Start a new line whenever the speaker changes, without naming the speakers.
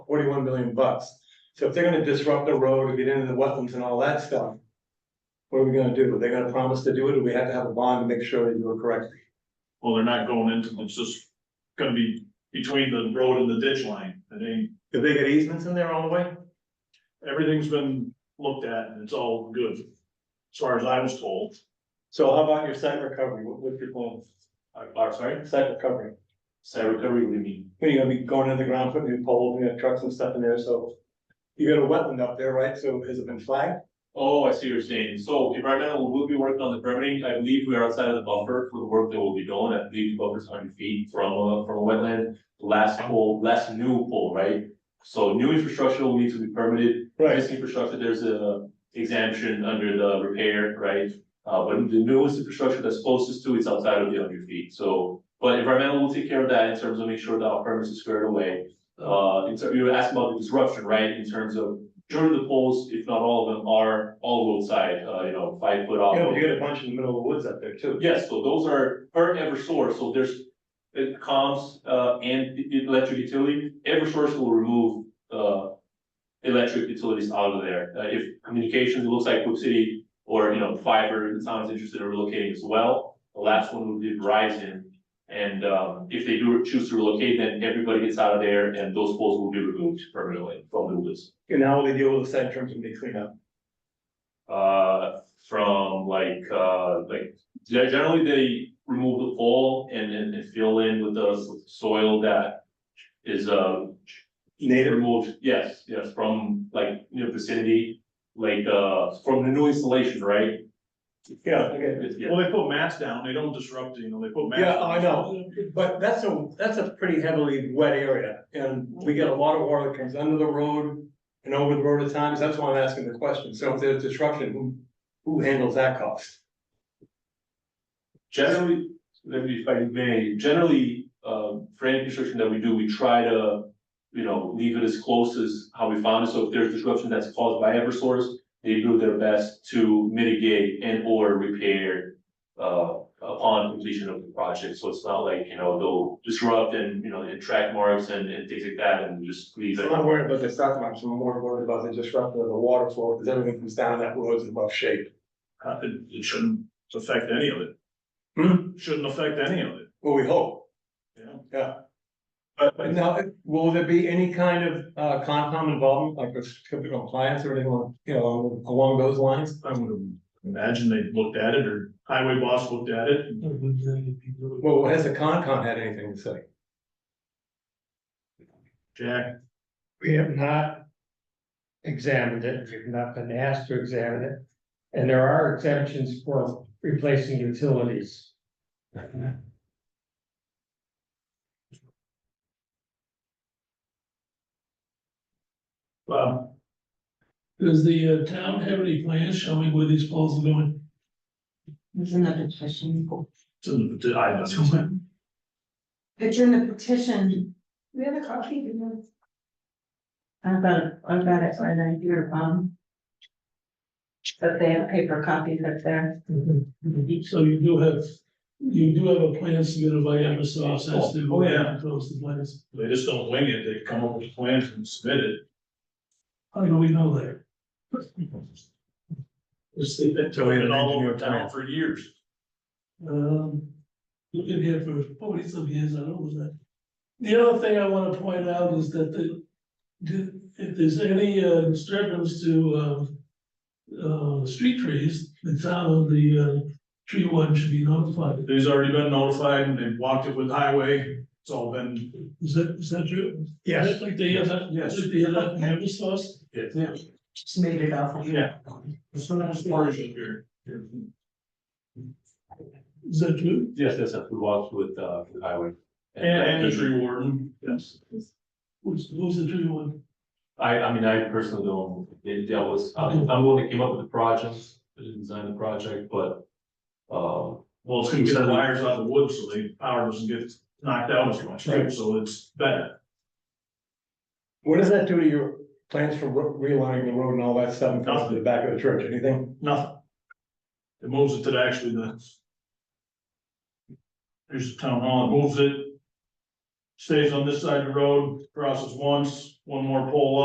forty-one million bucks. So if they're gonna disrupt the road and get into the wetlands and all that stuff. What are we gonna do? Are they gonna promise to do it? Or we have to have a bond to make sure they do it correctly?
Well, they're not going into, it's just gonna be between the road and the ditch line. It ain't,
Do they get easements in there all the way?
everything's been looked at and it's all good. As far as I was told.
So how about your site recovery? What, what's your plan?
I'm Uh, sorry?
Site recovery.
Site recovery, we mean.
When you're gonna be going in the ground, putting new poles, you know, trucks and stuff in there, so. You got a wetland up there, right? So has it been flagged?
Oh, I see what you're saying. So environmental, we'll be working on the permitting. I believe we are outside of the buffer for the work that will be done. I believe the buffer's hundred feet from a, from a wetland. The Last pole, last new pole, right? So new infrastructure will need to be permitted. Existing infrastructure, there's a exemption under the repair, right? Uh, but the newest infrastructure that's closest to it's outside of the hundred feet. So, but environmental will take care of that in terms of make sure that our permits is squared away. Uh, in ter- you were asking about the disruption, right? In terms of Majority of the poles, if not all of them, are all roadside, uh, you know, five foot off.
You know, you got a bunch in the middle of the woods up there too.
Yes, so those are per Eversource, so there's uh, comms, uh, and e- e- electric utility, Eversource will remove, uh. Electric utilities out of there, uh, if communications, it looks like Cook City or, you know, fiber, the town's interested in relocating as well. The last one would be Verizon, and, um, if they do choose to relocate, then everybody gets out of there and those poles will be removed permanently from the list.
And how will they deal with the site in terms of the cleanup?
uh, from like, uh, like, ge- generally they remove the fall and then they fill in with the s- soil that is, uh,
Native
removed, yes, yes, from like, you know, vicinity, like, uh, from the new installation, right?
Yeah, okay,
It's- yeah.
Well, they put mats down, they don't disrupt, you know, they put mats.
yeah,
down.
I know, but that's a, that's a pretty heavily wet area, and we get a lot of water that comes under the road. And over the road at times, that's why I'm asking the question, so if there's disruption, who, who handles that cost?
Generally, let me, if I may, generally, um, for any construction that we do, we try to, you know, leave it as close as how we found it, so if there's disruption that's caused by Eversource, they do their best to mitigate and or repair uh, upon completion of the project, so it's not like, you know, they'll disrupt and, you know, and track marks and, and things like that, and just leave
I'm
it.
not worried about the stock market, I'm more worried about the disruption of the water flow, because everything comes down that road's in rough shape.
Uh, It, it shouldn't affect any of it.
Hmm.
Shouldn't affect any of it,
Well, we hope,
you know?
yeah. But, but now, will there be any kind of, uh, Concom involvement, like a certificate of compliance or anything, along- you know, along those lines?
I would imagine they looked at it, or highway boss looked at it, and
Well, has the Concom had anything to say?
Jack,
We have not examined it, we've not been asked to examine it. And there are exemptions for replacing utilities.
Bob.
Does the uh, town have any plans showing where these poles are going?
There's another petition.
it's in the- I don't know.
It's in the petition.
We have a copy, you know.
I've got it, I've got it right now here, um. But they have paper copies up there.
So you do have, you do have a plan submitted by Eversource as to.
Oh, yeah.
Close the plans.
They just don't wing it, they come up with plans and submit it.
How do we Oh, know that?
It's, they've been doing it all over town for years.
Um, you've been here for forty some years, I don't know that. The other thing I wanna point out is that the, the- if there's any uh, disturbance to, um. Uh, street trees, the town of the, uh, tree one should be notified.
They've already been notified and they've walked it with highway, it's all been,
Is that, is that true?
Yes,
Like the other,
Yes.
like the uh, other hammer sauce?
yeah,
Just made it up.
yeah.
That's what I was wondering.
Here.
Is that true?
Yes, that's a walk with, uh, the highway.
And, and the tree warden, yes.
Who's, who's the true one?
I, I mean, I personally don't, it, that was, I'm, I'm the one that came up with the project, I didn't design the project, but. Uh,
Well, it's gonna get the wires out of the wood, so the power doesn't get knocked out as much, right? so it's better.
What does that do to your plans for re- realigning the road and all that stuff and comes to the back of the church, anything?
nothing. It moves it to the- actually the. There's the town hall, it moves it. Stays on this side of the road, crosses once, one more pole up.